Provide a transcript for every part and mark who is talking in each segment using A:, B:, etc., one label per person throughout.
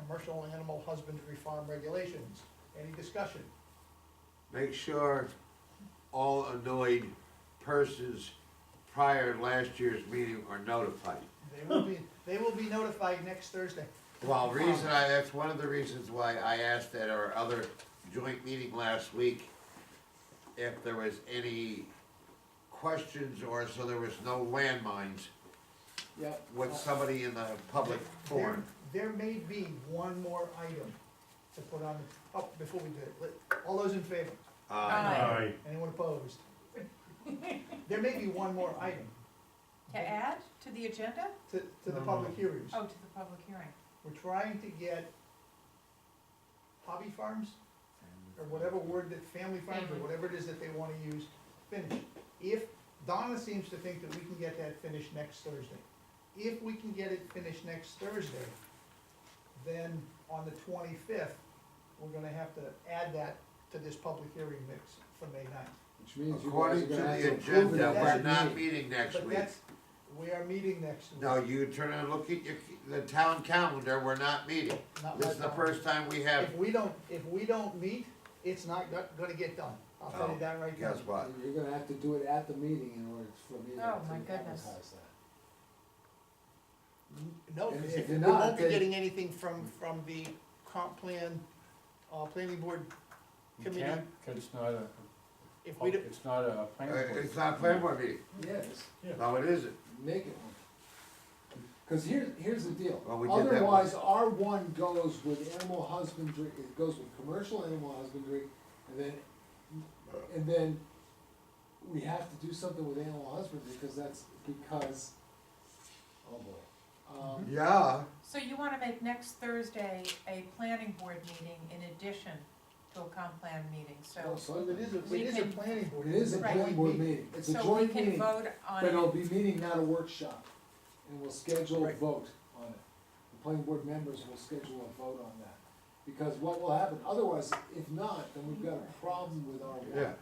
A: commercial animal husbandry farm regulations. Any discussion?
B: Make sure all annoyed persons prior to last year's meeting are notified.
A: They will be, they will be notified next Thursday.
B: Well, reason I, that's one of the reasons why I asked at our other joint meeting last week if there was any questions or so there was no landmines
C: Yep.
B: with somebody in the public forum.
A: There there may be one more item to put on, the- oh, before we do it, let- all those in favor?
B: Uh,
D: Aye.
A: Anyone opposed? There may be one more item
E: To add to the agenda?
A: to, to the public hearings.
E: Oh, to the public hearing.
A: We're trying to get hobby farms, or whatever word that, family farms, or whatever it is that they wanna use, finished. If, Donna seems to think that we can get that finished next Thursday. If we can get it finished next Thursday, then on the twenty-fifth, we're gonna have to add that to this public hearing mix for May ninth.
C: Which means you guys are
B: According to
C: gonna
B: the
C: have to approve it
B: agenda,
C: at
B: we're
C: that
B: not
C: meeting.
B: meeting next
A: But
B: week.
A: that's, we are meeting next week.
B: No, you turn and look at your, the town calendar, we're not meeting.
A: not
B: This
A: right
B: is the
A: now.
B: first time we have,
A: If we don't, if we don't meet, it's not go- gonna get done. I'll tell
B: Oh,
A: you that right now.
B: guess what?
C: You're gonna have to do it at the meeting in order for me to
E: Oh, my
C: to
E: goodness.
C: advertise that.
A: No,
C: And if
A: if-
C: you're
A: we
C: not,
A: won't be
C: then-
A: getting anything from, from the comp plan, uh, planning board
F: You
A: committee.
F: can't, 'cause it's not a,
A: If we don't,
F: it's not a
B: Uh,
F: planning board.
B: It's not planning board meeting,
C: Yes,
B: no, it isn't.
C: make it one. Cause here's, here's the deal.
B: Well, we did that one.
C: Otherwise, R one goes with animal husbandry, it goes with commercial animal husbandry, and then, and then we have to do something with animal husbandry, because that's, because, oh boy. Um,
B: Yeah,
E: So you wanna make next Thursday a planning board meeting in addition to a comp plan meeting,
C: well,
E: so,
C: so
A: it is, a-
E: We
A: it is a
E: can-
A: planning board.
C: It is a
E: Right.
C: joint board meeting, it's a
E: so we
C: joint
E: can
C: meeting,
E: vote on
C: but it'll
E: it.
C: be meeting, not a workshop, and we'll schedule a
A: Right.
C: vote on it. The planning board members will schedule a vote on that, because what will happen, otherwise, if not, then we've got a problem with R one.
B: yeah,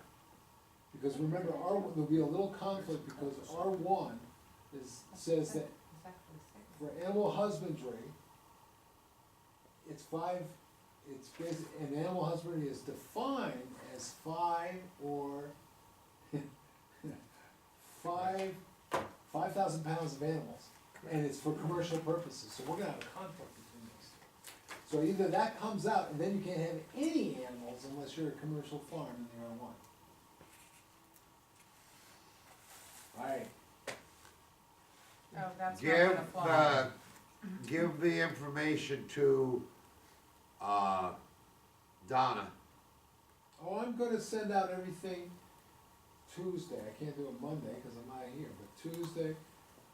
C: Because remember, R one, there'll be a little conflict, because R one is, says that
E: It's actually six.
C: for animal husbandry, it's five, it's basic, and animal husbandry is defined as five or five, five thousand pounds of animals, and it's for commercial purposes, so we're gonna have a conflict between those. So either that comes out, and then you can't have any animals unless you're a commercial farm in the R one. Alright,
E: Oh, that's not
B: give,
E: gonna fly.
B: uh, give the information to, uh, Donna.
C: Oh, I'm gonna send out everything Tuesday, I can't do it Monday, cause I'm not here, but Tuesday,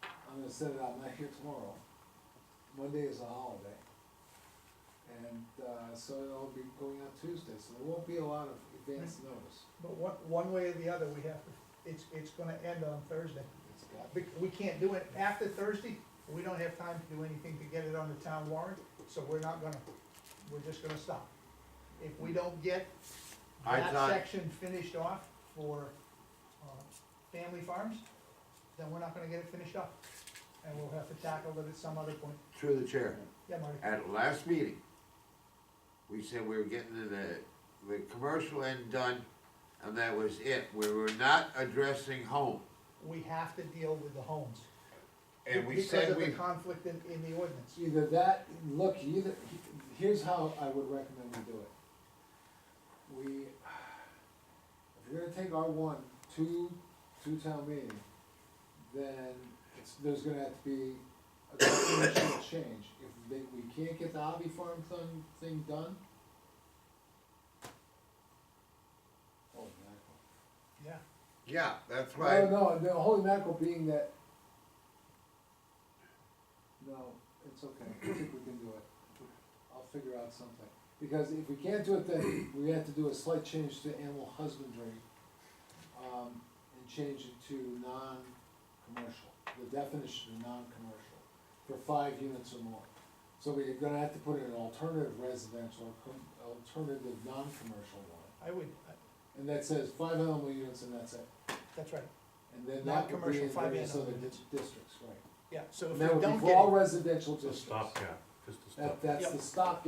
C: I'm gonna send it out, I'm not here tomorrow. Monday is a holiday. And, uh, so it'll be going out Tuesday, so there won't be a lot of advance notice,
A: But one, one way or the other, we have, to- it's, it's gonna end on Thursday.
C: it's got,
A: We, we can't do it after Thursday, we don't have time to do anything to get it on the town warrant, so we're not gonna, we're just gonna stop. If we don't get
B: I
A: that
B: thought-
A: section finished off for, uh, family farms, then we're not gonna get it finished up. And we'll have to tackle it at some other point.
B: Through the chair,
A: Yeah, Marty?
B: at last meeting, we said we were getting the, the commercial end done, and that was it, we were not addressing home.
A: We have to deal with the homes.
B: And we said
A: Because of
B: we,
A: the conflict in, in the ordinance.
C: either that, look, either, here's how I would recommend we do it. We, if you're gonna take R one to, to town meeting, then it's, there's gonna have to be a constitutional change. If they, we can't get the hobby farm thing, thing done. Holy mackerel.
A: Yeah,
B: yeah, that's right,
C: No, no, the holy mackerel being that, no, it's okay, I think we can do it. I'll figure out something. Because if we can't do it, then we have to do a slight change to animal husbandry, um, and change it to non-commercial, the definition of non-commercial, for five units or more. So we're gonna have to put in an alternative residential, com- alternative non-commercial one,
A: I would, I-
C: and that says five animal units and that's it.
A: that's right,
C: And then that would be
A: Non-commercial
C: in
A: five
C: various
A: animal
C: other
A: units.
C: di- districts, right.
A: yeah, so if
C: And
A: we
C: that
A: don't
C: would
A: get
C: be
A: it.
C: for all residential
D: It's a
C: districts.
D: stopgap, just a stopgap.
C: That, that's the
A: Yep.
C: stopgap